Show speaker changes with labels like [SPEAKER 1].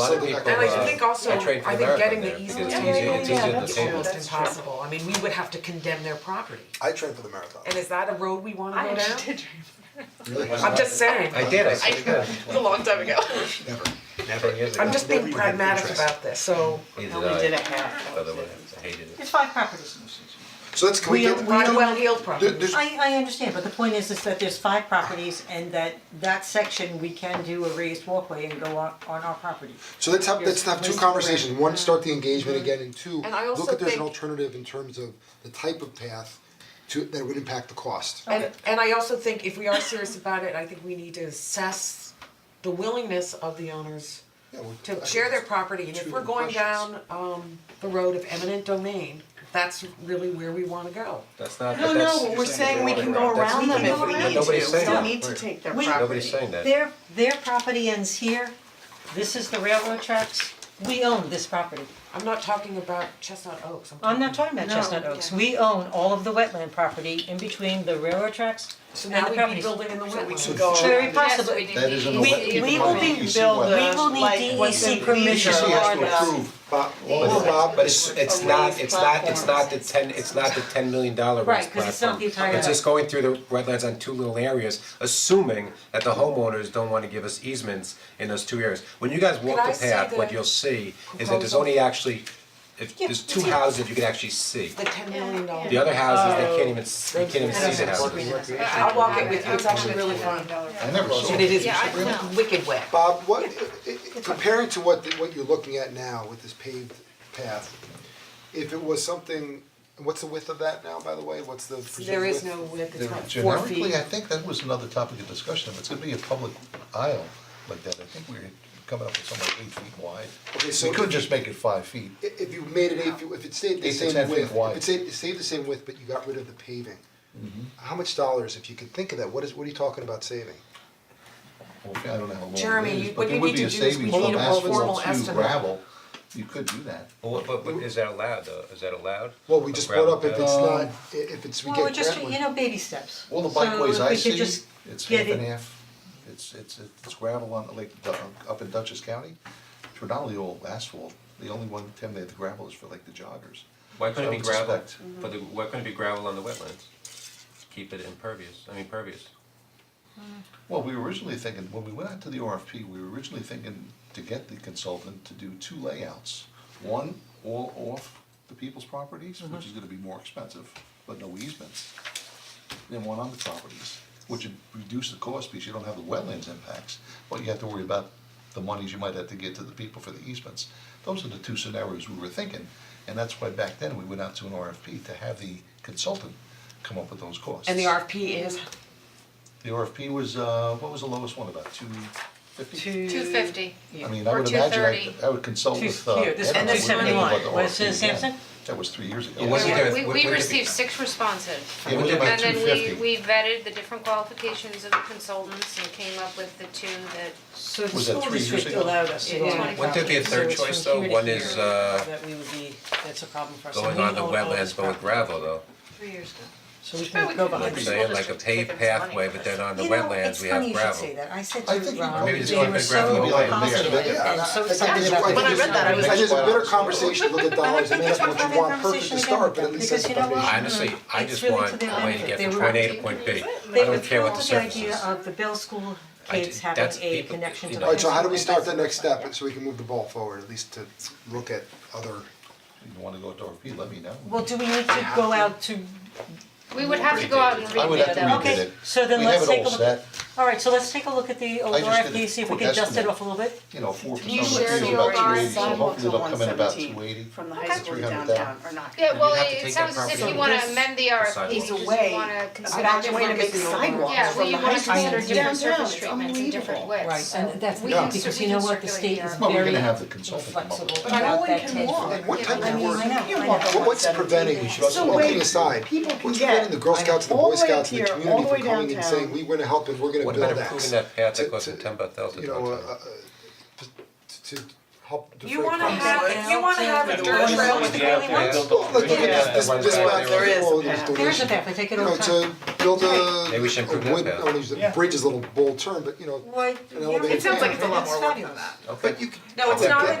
[SPEAKER 1] lot of
[SPEAKER 2] So,
[SPEAKER 1] people,
[SPEAKER 2] and I
[SPEAKER 1] uh,
[SPEAKER 3] think also,
[SPEAKER 1] I trade for
[SPEAKER 3] I think
[SPEAKER 1] America
[SPEAKER 3] getting the
[SPEAKER 1] there because
[SPEAKER 3] easement
[SPEAKER 1] it's easy,
[SPEAKER 3] Yeah,
[SPEAKER 1] it's easier
[SPEAKER 3] yeah,
[SPEAKER 1] than
[SPEAKER 3] that's
[SPEAKER 1] the
[SPEAKER 3] true.
[SPEAKER 1] Staples.
[SPEAKER 3] almost impossible, I mean, we would have to condemn their property,
[SPEAKER 2] I trained for the marathon.
[SPEAKER 3] and is that a road we wanna go down?
[SPEAKER 4] did dream.
[SPEAKER 3] I'm just saying,
[SPEAKER 1] I did, I
[SPEAKER 4] I
[SPEAKER 1] said,
[SPEAKER 4] know, it was a long time ago.
[SPEAKER 1] never years ago.
[SPEAKER 3] I'm just being pragmatic about this, so,
[SPEAKER 1] Neither
[SPEAKER 5] Only
[SPEAKER 1] I,
[SPEAKER 5] did a half.
[SPEAKER 1] by the way, I hated it.
[SPEAKER 5] It's five properties in the city.
[SPEAKER 2] So let's, can we
[SPEAKER 5] We-
[SPEAKER 2] get,
[SPEAKER 5] we-
[SPEAKER 3] not well-heeled
[SPEAKER 2] there-
[SPEAKER 3] property.
[SPEAKER 2] there's,
[SPEAKER 5] I I understand, but the point is is that there's five properties and that that section we can do a raised walkway and go on on our property.
[SPEAKER 2] so let's have, let's have two
[SPEAKER 5] There's-
[SPEAKER 2] conversations, one, start the engagement again, and two,
[SPEAKER 3] And I also
[SPEAKER 2] look at there's an
[SPEAKER 3] think-
[SPEAKER 2] alternative in terms of the type of path to, that would impact the cost.
[SPEAKER 3] and and I also think if we are serious about it, I think we need to assess the willingness of the owners
[SPEAKER 2] Yeah, well, I
[SPEAKER 3] to
[SPEAKER 2] think
[SPEAKER 3] share their
[SPEAKER 2] it's-
[SPEAKER 3] property, and if
[SPEAKER 2] two
[SPEAKER 3] we're going
[SPEAKER 2] questions.
[SPEAKER 3] down um the road of eminent domain, that's really where we wanna go.
[SPEAKER 1] That's not,
[SPEAKER 6] No,
[SPEAKER 1] but that's.
[SPEAKER 6] no, we're saying we can go
[SPEAKER 1] That's-
[SPEAKER 6] around them if we need to,
[SPEAKER 1] nobody's
[SPEAKER 6] we
[SPEAKER 1] saying
[SPEAKER 6] don't
[SPEAKER 1] that.
[SPEAKER 6] need to take their
[SPEAKER 5] We-
[SPEAKER 6] property.
[SPEAKER 1] Nobody's saying that.
[SPEAKER 5] Their their property ends here, this is the railroad tracks, we own this property.
[SPEAKER 3] I'm not talking about Chestnut Oaks, I'm talking.
[SPEAKER 5] I'm not talking about
[SPEAKER 6] No,
[SPEAKER 5] Chestnut Oaks, we own all of the wetland property in between the railroad tracks
[SPEAKER 3] So
[SPEAKER 5] and the
[SPEAKER 3] now
[SPEAKER 5] properties.
[SPEAKER 3] we'd be building in the wetlands.
[SPEAKER 6] Go around
[SPEAKER 5] Very
[SPEAKER 6] it.
[SPEAKER 5] possible.
[SPEAKER 2] That is in the wet-
[SPEAKER 6] We, we will be
[SPEAKER 2] DEC
[SPEAKER 6] building
[SPEAKER 2] wetlands.
[SPEAKER 5] We will need
[SPEAKER 6] like what's
[SPEAKER 5] DEC
[SPEAKER 6] in
[SPEAKER 5] permission.
[SPEAKER 6] Florida.
[SPEAKER 2] DEC has to approve, Bob, well, Bob,
[SPEAKER 1] But it's it's not, it's not, it's not the ten, it's not the ten million dollar
[SPEAKER 5] Right,
[SPEAKER 1] rest platform.
[SPEAKER 5] 'cause it's not the entire-
[SPEAKER 1] It's just going through the wetlands on two little areas, assuming that the homeowners don't wanna give us easements in those two areas. When you guys walk
[SPEAKER 3] Could I
[SPEAKER 1] the
[SPEAKER 3] see
[SPEAKER 1] path, what
[SPEAKER 3] the
[SPEAKER 1] you'll see is that there's
[SPEAKER 3] proposal?
[SPEAKER 1] only actually, if
[SPEAKER 5] Yeah,
[SPEAKER 1] there's two
[SPEAKER 5] yeah.
[SPEAKER 1] houses you can actually see.
[SPEAKER 3] The ten million dollars.
[SPEAKER 1] The other houses, they can't even, s- you can't even see the houses.
[SPEAKER 3] I'll walk it with you, it's actually really fun.
[SPEAKER 2] I never saw
[SPEAKER 3] And it is wicked wet.
[SPEAKER 2] Bob, what, i- i- comparing to what, the- what you're looking at now with this paved path, if it was something, what's the width of that now, by the way, what's the presumed
[SPEAKER 3] There is
[SPEAKER 2] width?
[SPEAKER 3] no width, it's not four feet.
[SPEAKER 7] Generically, I think that was another topic of discussion, if it's gonna be a public aisle like that, I think we we're coming up with something like eight feet wide.
[SPEAKER 2] Okay, so-
[SPEAKER 7] We could just make it five feet,
[SPEAKER 2] I- If you made it eight, feet- if it stayed the
[SPEAKER 7] Eight to
[SPEAKER 2] same
[SPEAKER 7] 10 feet
[SPEAKER 2] width, if
[SPEAKER 7] wide. Mm-hmm.
[SPEAKER 2] it stayed, it stayed the same width, but you got rid of the paving. How much dollars, if you could think of that, what is, what are you talking about saving?
[SPEAKER 7] Well, I don't know how long it is,
[SPEAKER 3] Jeremy, you-
[SPEAKER 7] but
[SPEAKER 3] what
[SPEAKER 7] there
[SPEAKER 3] you
[SPEAKER 7] would
[SPEAKER 3] need
[SPEAKER 7] be
[SPEAKER 3] to do
[SPEAKER 7] a
[SPEAKER 3] is we
[SPEAKER 7] savings
[SPEAKER 3] need
[SPEAKER 7] from
[SPEAKER 3] a formal
[SPEAKER 7] asphalt to
[SPEAKER 3] estimate.
[SPEAKER 7] gravel, you could do that.
[SPEAKER 1] Well, but but is that allowed though, is that allowed?
[SPEAKER 2] Well, we just brought up if it's
[SPEAKER 7] Um,
[SPEAKER 2] not, i- if it's, we
[SPEAKER 5] Well, we're
[SPEAKER 2] get
[SPEAKER 5] just,
[SPEAKER 2] grant
[SPEAKER 5] you
[SPEAKER 2] money.
[SPEAKER 5] know, baby steps.
[SPEAKER 7] All the bikeways I see, it's half
[SPEAKER 5] get
[SPEAKER 7] and
[SPEAKER 5] it-
[SPEAKER 7] half, it's it's it's gravel on like Du- up in Dutchess County, it's predominantly all asphalt, the only one, Tim, they have the gravel is for like the joggers.
[SPEAKER 1] Why couldn't it
[SPEAKER 7] I
[SPEAKER 1] be
[SPEAKER 7] would
[SPEAKER 1] gravel,
[SPEAKER 7] suspect.
[SPEAKER 1] but the, why couldn't it be gravel on the wetlands? Keep it impervious, I mean pervious.
[SPEAKER 7] Well, we were originally thinking, when we went out to the RFP, we were originally thinking to get the consultant to do two layouts. One, all off the people's properties, which is gonna be more expensive, but no easements. Then one on the properties, which would reduce the cost because you don't have the wetlands impacts, but you have to worry about the monies you might have to get to the people for the easements. Those are the two scenarios we were thinking, and that's why back then we went out to an RFP to have the consultant come up with those costs.
[SPEAKER 3] And the RFP is,
[SPEAKER 7] The RFP was, uh, what was the lowest one, about two fifty?
[SPEAKER 4] Two fifty.
[SPEAKER 7] I mean, I
[SPEAKER 4] Or
[SPEAKER 7] would imagine, I,
[SPEAKER 4] 230.
[SPEAKER 7] I would consult
[SPEAKER 5] Two-
[SPEAKER 7] with, uh,
[SPEAKER 5] here, this-
[SPEAKER 7] Edna,
[SPEAKER 5] and
[SPEAKER 7] I
[SPEAKER 5] this
[SPEAKER 7] wouldn't know
[SPEAKER 5] one,
[SPEAKER 7] what the
[SPEAKER 5] was it
[SPEAKER 7] RFP then.
[SPEAKER 5] Samson?
[SPEAKER 7] That was three years ago.
[SPEAKER 1] It wasn't
[SPEAKER 7] Yeah,
[SPEAKER 1] there-
[SPEAKER 4] We,
[SPEAKER 1] what-
[SPEAKER 4] we
[SPEAKER 1] what-
[SPEAKER 4] received six responses.
[SPEAKER 7] it was about
[SPEAKER 4] And
[SPEAKER 7] two
[SPEAKER 4] then we,
[SPEAKER 7] fifty.
[SPEAKER 4] we vetted the different qualifications of the consultants and came up with the two that
[SPEAKER 5] So the
[SPEAKER 7] Was that
[SPEAKER 5] school
[SPEAKER 7] three years
[SPEAKER 5] district
[SPEAKER 7] ago?
[SPEAKER 5] allowed us to go
[SPEAKER 4] Yeah.
[SPEAKER 5] on
[SPEAKER 4] Wouldn't
[SPEAKER 5] the
[SPEAKER 4] there
[SPEAKER 1] be a
[SPEAKER 5] property, so
[SPEAKER 1] third
[SPEAKER 5] it's from
[SPEAKER 1] choice, though?
[SPEAKER 5] here to
[SPEAKER 1] One is,
[SPEAKER 5] here
[SPEAKER 1] uh,
[SPEAKER 5] that we would be, that's a problem for us. and
[SPEAKER 1] Going
[SPEAKER 5] we
[SPEAKER 1] on the
[SPEAKER 5] own all this
[SPEAKER 1] wetlands, but with
[SPEAKER 5] property.
[SPEAKER 1] gravel though,
[SPEAKER 4] three years ago.
[SPEAKER 5] So we can go by.
[SPEAKER 1] I'm saying like a paved pathway, but then on the wetlands, we have gravel.
[SPEAKER 5] You know, it's funny you should say that, I said
[SPEAKER 7] I
[SPEAKER 5] to
[SPEAKER 7] think
[SPEAKER 5] Ron,
[SPEAKER 7] maybe
[SPEAKER 5] they
[SPEAKER 1] it's
[SPEAKER 5] were
[SPEAKER 1] like the gravel
[SPEAKER 5] so
[SPEAKER 1] will be like
[SPEAKER 7] a mix,
[SPEAKER 5] positive
[SPEAKER 2] yeah.
[SPEAKER 5] and so
[SPEAKER 2] I think
[SPEAKER 5] excited
[SPEAKER 2] it's- I think
[SPEAKER 5] about the vision.
[SPEAKER 2] it's-
[SPEAKER 6] read that, I was
[SPEAKER 2] I
[SPEAKER 6] like-
[SPEAKER 2] think it's a better conversation to look at dollars and ask what you want perfect to start, but at least that's
[SPEAKER 5] Because you know what?
[SPEAKER 1] I
[SPEAKER 2] foundation.
[SPEAKER 1] Honestly, I
[SPEAKER 5] Mm-hmm. It's
[SPEAKER 1] just
[SPEAKER 5] really
[SPEAKER 1] want
[SPEAKER 5] to their
[SPEAKER 1] a way to
[SPEAKER 5] benefit.
[SPEAKER 1] get
[SPEAKER 5] They
[SPEAKER 1] from
[SPEAKER 5] were-
[SPEAKER 1] point A to point B, I
[SPEAKER 5] They
[SPEAKER 1] don't
[SPEAKER 5] were
[SPEAKER 1] care
[SPEAKER 5] thrilled
[SPEAKER 1] what the
[SPEAKER 5] with the
[SPEAKER 1] surface is.
[SPEAKER 5] idea of the Bell School
[SPEAKER 1] I
[SPEAKER 5] kids
[SPEAKER 1] did-
[SPEAKER 5] having
[SPEAKER 1] that's
[SPEAKER 5] a
[SPEAKER 1] people-
[SPEAKER 5] connection
[SPEAKER 1] you
[SPEAKER 5] to
[SPEAKER 1] know.
[SPEAKER 5] the.
[SPEAKER 2] Alright, so how do we
[SPEAKER 5] Hudson
[SPEAKER 2] start the
[SPEAKER 5] River.
[SPEAKER 2] next
[SPEAKER 5] Yeah.
[SPEAKER 2] step, so we can move the ball forward, at least to look at other,
[SPEAKER 7] If You wanna go to RFP, let me know.
[SPEAKER 5] Well, do we need to go out to,
[SPEAKER 4] We would have to go out and
[SPEAKER 7] I would
[SPEAKER 4] rebid
[SPEAKER 7] have to
[SPEAKER 4] them.
[SPEAKER 7] rebid
[SPEAKER 5] Okay,
[SPEAKER 7] it.
[SPEAKER 5] so then let's take a
[SPEAKER 7] We
[SPEAKER 5] look-
[SPEAKER 7] have it all set,
[SPEAKER 5] alright, so let's take a look at the old
[SPEAKER 7] I just did a
[SPEAKER 5] RFP, see if we
[SPEAKER 7] quick
[SPEAKER 5] can dust it
[SPEAKER 7] estimate.
[SPEAKER 5] off a little bit.
[SPEAKER 7] you know, four
[SPEAKER 6] Do you
[SPEAKER 7] percent,
[SPEAKER 6] share
[SPEAKER 7] it's
[SPEAKER 6] the
[SPEAKER 7] about two
[SPEAKER 6] override
[SPEAKER 7] eighty, so
[SPEAKER 6] sidewalks
[SPEAKER 7] hopefully
[SPEAKER 6] on
[SPEAKER 7] they'll
[SPEAKER 6] one
[SPEAKER 7] come in about two eighty.
[SPEAKER 6] seventeen from the high school
[SPEAKER 7] 300,000.
[SPEAKER 6] downtown or not?
[SPEAKER 4] Yeah, well,
[SPEAKER 1] You'd have to
[SPEAKER 4] it
[SPEAKER 1] take
[SPEAKER 4] sounds
[SPEAKER 1] that
[SPEAKER 4] as if
[SPEAKER 1] property.
[SPEAKER 4] you wanna
[SPEAKER 6] This
[SPEAKER 4] amend the RFP, you
[SPEAKER 6] Is a
[SPEAKER 4] just
[SPEAKER 6] way,
[SPEAKER 4] wanna
[SPEAKER 6] a
[SPEAKER 4] consider
[SPEAKER 6] better way to
[SPEAKER 4] different-
[SPEAKER 6] make sidewalks
[SPEAKER 4] Yeah, well,
[SPEAKER 6] from
[SPEAKER 4] you
[SPEAKER 6] the
[SPEAKER 4] wanna
[SPEAKER 6] high school
[SPEAKER 4] consider different
[SPEAKER 6] downtown,
[SPEAKER 4] surface
[SPEAKER 6] it's
[SPEAKER 4] treatments in different
[SPEAKER 6] unbelievable.
[SPEAKER 4] ways, so
[SPEAKER 5] and that's
[SPEAKER 4] we
[SPEAKER 5] not-
[SPEAKER 4] can
[SPEAKER 5] because
[SPEAKER 4] cer-
[SPEAKER 5] you
[SPEAKER 4] we
[SPEAKER 5] know
[SPEAKER 4] can
[SPEAKER 5] what, the
[SPEAKER 4] circulate
[SPEAKER 5] state is
[SPEAKER 4] the
[SPEAKER 7] Well, we're
[SPEAKER 5] Very
[SPEAKER 7] gonna have the consultant come up with
[SPEAKER 5] flexible.
[SPEAKER 7] it.
[SPEAKER 5] But
[SPEAKER 6] no one
[SPEAKER 5] that
[SPEAKER 6] can
[SPEAKER 5] ten
[SPEAKER 6] walk.
[SPEAKER 5] foot.
[SPEAKER 2] and what type
[SPEAKER 5] I
[SPEAKER 2] of
[SPEAKER 5] mean,
[SPEAKER 2] work?
[SPEAKER 5] I know,
[SPEAKER 6] You
[SPEAKER 5] I
[SPEAKER 6] walk up
[SPEAKER 5] know.
[SPEAKER 2] What- what's
[SPEAKER 6] 117.
[SPEAKER 2] preventing, we should also,
[SPEAKER 6] So
[SPEAKER 2] well,
[SPEAKER 6] wait,
[SPEAKER 2] kidding aside,
[SPEAKER 6] people can
[SPEAKER 2] what's
[SPEAKER 6] get
[SPEAKER 2] preventing the Girl Scouts and the
[SPEAKER 6] all
[SPEAKER 2] Boy
[SPEAKER 6] the way up
[SPEAKER 2] Scouts and the
[SPEAKER 6] here, all
[SPEAKER 2] community
[SPEAKER 6] the
[SPEAKER 2] from
[SPEAKER 6] way
[SPEAKER 2] coming and
[SPEAKER 6] downtown.
[SPEAKER 2] saying, we wanna help and we're gonna
[SPEAKER 1] What
[SPEAKER 2] build
[SPEAKER 1] about
[SPEAKER 2] that?
[SPEAKER 1] improving that path
[SPEAKER 2] To-
[SPEAKER 1] that goes
[SPEAKER 2] to-
[SPEAKER 1] from ten by thousand
[SPEAKER 2] You
[SPEAKER 1] to
[SPEAKER 2] know, uh,
[SPEAKER 1] downtown?
[SPEAKER 2] uh, to, to help defray
[SPEAKER 3] you wanna
[SPEAKER 2] costs.
[SPEAKER 3] have, if you wanna have a dirt trail with the
[SPEAKER 5] Yeah,
[SPEAKER 3] gravel,
[SPEAKER 2] Look, look at this, this, this
[SPEAKER 1] Yeah.
[SPEAKER 2] back
[SPEAKER 6] There is a
[SPEAKER 2] wall, this
[SPEAKER 6] path.
[SPEAKER 2] donation.
[SPEAKER 5] There's a path, I take it
[SPEAKER 2] You
[SPEAKER 5] all
[SPEAKER 2] know,
[SPEAKER 5] the
[SPEAKER 2] it's
[SPEAKER 5] time.
[SPEAKER 2] a build a
[SPEAKER 1] Maybe we should improve
[SPEAKER 2] a
[SPEAKER 1] that
[SPEAKER 2] wood, I
[SPEAKER 1] path.
[SPEAKER 2] wanna use the
[SPEAKER 8] Yeah.
[SPEAKER 2] bridge is a little bold term, but you know,
[SPEAKER 9] Why,
[SPEAKER 2] An elevated
[SPEAKER 3] It sounds like it's a lot more work than
[SPEAKER 9] fabulous.
[SPEAKER 3] that.
[SPEAKER 1] Okay.
[SPEAKER 2] but you could.
[SPEAKER 10] No, it's not a